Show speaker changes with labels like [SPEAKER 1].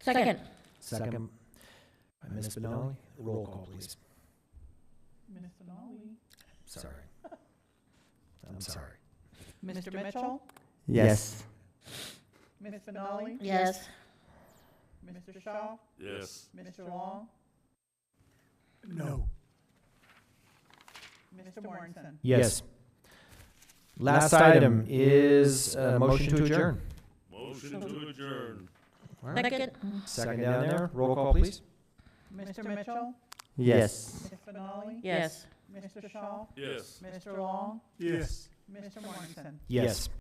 [SPEAKER 1] Second.
[SPEAKER 2] Second by Ms. Benali. Roll call, please.
[SPEAKER 3] Ms. Denali.
[SPEAKER 2] Sorry. I'm sorry.
[SPEAKER 3] Mr. Mitchell.
[SPEAKER 4] Yes.
[SPEAKER 3] Ms. Benali.
[SPEAKER 1] Yes.
[SPEAKER 3] Mr. Shaw.
[SPEAKER 5] Yes.
[SPEAKER 3] Mr. Long.
[SPEAKER 2] No.
[SPEAKER 3] Mr. Morrison.
[SPEAKER 2] Yes. Last item is a motion to adjourn.
[SPEAKER 5] Motion to adjourn.
[SPEAKER 2] All right.
[SPEAKER 1] Second.
[SPEAKER 2] Second down there. Roll call, please.
[SPEAKER 3] Mr. Mitchell.
[SPEAKER 4] Yes.
[SPEAKER 3] Ms. Benali.
[SPEAKER 1] Yes.
[SPEAKER 3] Mr. Shaw.
[SPEAKER 5] Yes.
[SPEAKER 3] Mr. Long.
[SPEAKER 5] Yes.
[SPEAKER 3] Mr. Morrison.
[SPEAKER 2] Yes.